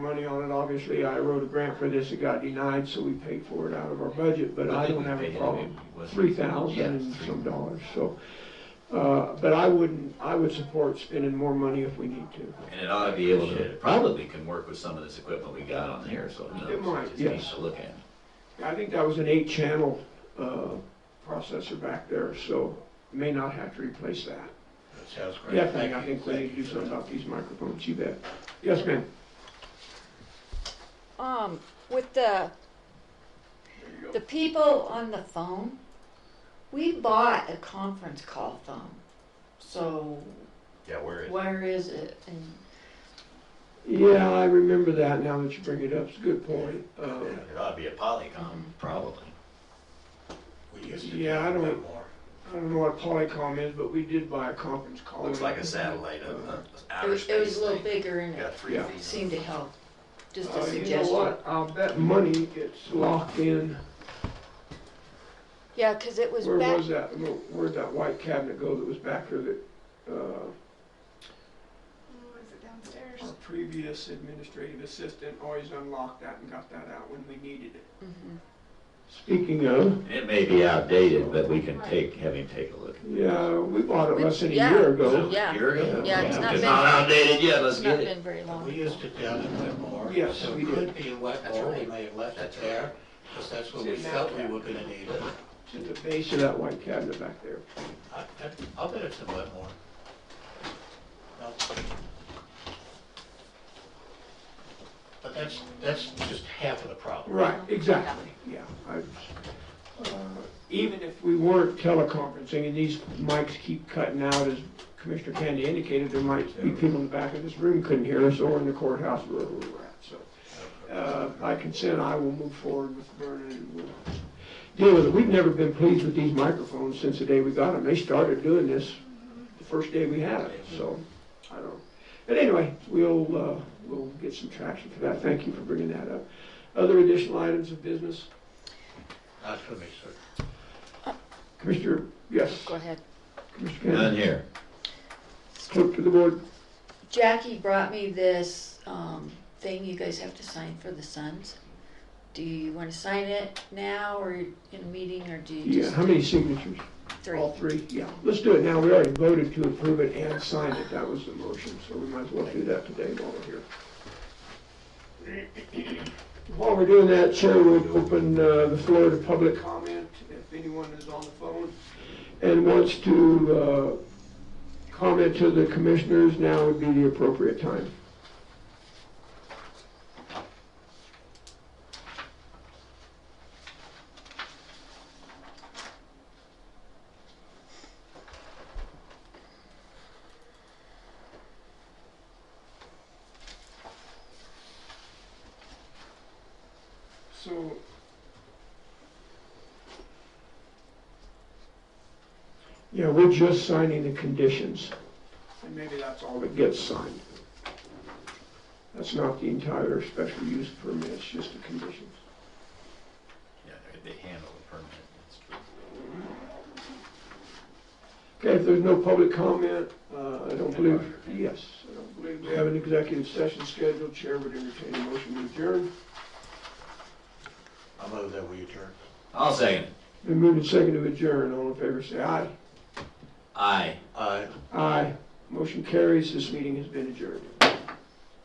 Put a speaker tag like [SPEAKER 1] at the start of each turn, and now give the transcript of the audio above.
[SPEAKER 1] money on it, obviously, I wrote a grant for this, it got denied, so we paid for it out of our budget, but I don't have a problem. Three thousand and some dollars, so, uh, but I wouldn't, I would support spending more money if we need to.
[SPEAKER 2] And it ought to be able to, probably can work with some of this equipment we got on here, so who knows?
[SPEAKER 1] It might,
[SPEAKER 2] Just
[SPEAKER 1] yes.
[SPEAKER 2] needs to look at.
[SPEAKER 1] I think that was an eight-channel, uh, processor back there, so may not have to replace that.
[SPEAKER 3] That sounds great.
[SPEAKER 1] Definitely, I
[SPEAKER 3] Thank you.
[SPEAKER 1] think we need to
[SPEAKER 3] Thank you
[SPEAKER 1] do
[SPEAKER 3] for
[SPEAKER 1] something
[SPEAKER 3] that.
[SPEAKER 1] about these microphones, you bet. Yes, ma'am?
[SPEAKER 4] Um, with the, the people on the phone, we bought a conference call phone. So
[SPEAKER 3] Yeah, where is it?
[SPEAKER 4] where is it? And
[SPEAKER 1] Yeah, I remember that now that you bring it up, it's a good point. Uh,
[SPEAKER 3] It ought to be a Polycom.
[SPEAKER 2] Probably.
[SPEAKER 3] We used to do
[SPEAKER 1] Yeah, I
[SPEAKER 3] a bit
[SPEAKER 1] don't-
[SPEAKER 3] more.
[SPEAKER 1] I don't know what Polycom is, but we did buy a conference call. Uh,
[SPEAKER 3] Looks like a satellite, a, a
[SPEAKER 4] it
[SPEAKER 3] outer
[SPEAKER 4] was, it
[SPEAKER 3] space
[SPEAKER 4] was a little
[SPEAKER 3] thing.
[SPEAKER 4] bigger and
[SPEAKER 3] Got
[SPEAKER 4] it
[SPEAKER 3] three
[SPEAKER 1] Yeah.
[SPEAKER 3] feet.
[SPEAKER 4] seemed to help. Just
[SPEAKER 1] Uh,
[SPEAKER 4] a
[SPEAKER 1] You know
[SPEAKER 4] suggestion.
[SPEAKER 1] what, I'll bet money gets locked in,
[SPEAKER 4] Yeah, cause it was
[SPEAKER 1] where
[SPEAKER 4] back,
[SPEAKER 1] was that, where'd that white cabinet go that was back there that, uh,
[SPEAKER 5] Oh, is it downstairs?
[SPEAKER 1] our previous administrative assistant always unlocked that and got that out when we needed it.
[SPEAKER 4] Mhm.
[SPEAKER 1] Speaking of,
[SPEAKER 2] It may be outdated, but we can take, have him take a look.
[SPEAKER 1] yeah, we bought it
[SPEAKER 4] We-
[SPEAKER 1] less than a
[SPEAKER 4] yeah.
[SPEAKER 1] year
[SPEAKER 2] So,
[SPEAKER 1] ago.
[SPEAKER 4] Yeah.
[SPEAKER 2] you're in.
[SPEAKER 4] Yeah, it's not
[SPEAKER 2] It's
[SPEAKER 4] been-
[SPEAKER 2] not outdated yet, let's
[SPEAKER 4] it's not
[SPEAKER 2] get it.
[SPEAKER 4] been very
[SPEAKER 3] We
[SPEAKER 4] long.
[SPEAKER 3] used it down in Wetmore.
[SPEAKER 1] Yes,
[SPEAKER 3] So
[SPEAKER 1] we
[SPEAKER 3] it
[SPEAKER 1] did.
[SPEAKER 3] could be in Wetmore,
[SPEAKER 2] right.
[SPEAKER 3] we may have left it
[SPEAKER 2] That's
[SPEAKER 3] there, because that's where we
[SPEAKER 1] It's in
[SPEAKER 3] felt we
[SPEAKER 1] that
[SPEAKER 3] were gonna need it.
[SPEAKER 1] To the base of that white cabinet back there.
[SPEAKER 3] I, I- I'll bet it's in Wetmore. No. But that's, that's just half of the problem.
[SPEAKER 1] Right, exactly, yeah. I- uh, Even if we weren't teleconferencing, and these mics keep cutting out, as Commissioner Candy indicated, there might be people in the back of this room couldn't hear us, or in the courthouse, wherever we were at, so. Uh, By consent, I will move forward with Vernon and we'll deal with it. We've never been pleased with these microphones since the day we got them. They started doing this the first day we had it, so, I don't. But anyway, we'll, uh, we'll get some traction for that. Thank you for bringing that up. Other additional items of business?
[SPEAKER 3] Not for me, sir.
[SPEAKER 1] Commissioner, yes,
[SPEAKER 4] Go ahead.
[SPEAKER 1] Commissioner
[SPEAKER 2] None
[SPEAKER 1] Kennedy,
[SPEAKER 2] here.
[SPEAKER 1] clerk to the board.
[SPEAKER 4] Jackie brought me this, um, thing you guys have to sign for the sons. Do you wanna sign it now or in a meeting or do you
[SPEAKER 1] Yeah,
[SPEAKER 4] just
[SPEAKER 1] how many signatures?
[SPEAKER 4] three?
[SPEAKER 1] All three, yeah. Let's do it now. We already voted to approve it and sign it. That was the motion, so we might as well do that today while we're here. While we're doing that, Chair, we'll open uh, the floor to public comment if anyone is on the phone and wants to uh, comment to the commissioners, now would be the appropriate time. So. Yeah, we're just signing the conditions. And maybe that's all that gets signed. That's not the entire special use permit, it's just the conditions.
[SPEAKER 2] Yeah, they handle the permit, that's true.
[SPEAKER 1] Okay, if there's no public comment, uh, I don't believe, yes, I don't believe we have an executive session scheduled. Chair would entertain a motion to adjourn.
[SPEAKER 3] I'll move that we adjourn.
[SPEAKER 2] I'll second it.
[SPEAKER 1] Been moved and seconded to adjourn. All in favor, say aye.
[SPEAKER 2] Aye.
[SPEAKER 3] Aye. Uh,
[SPEAKER 1] Aye. Motion carries. This meeting has been adjourned.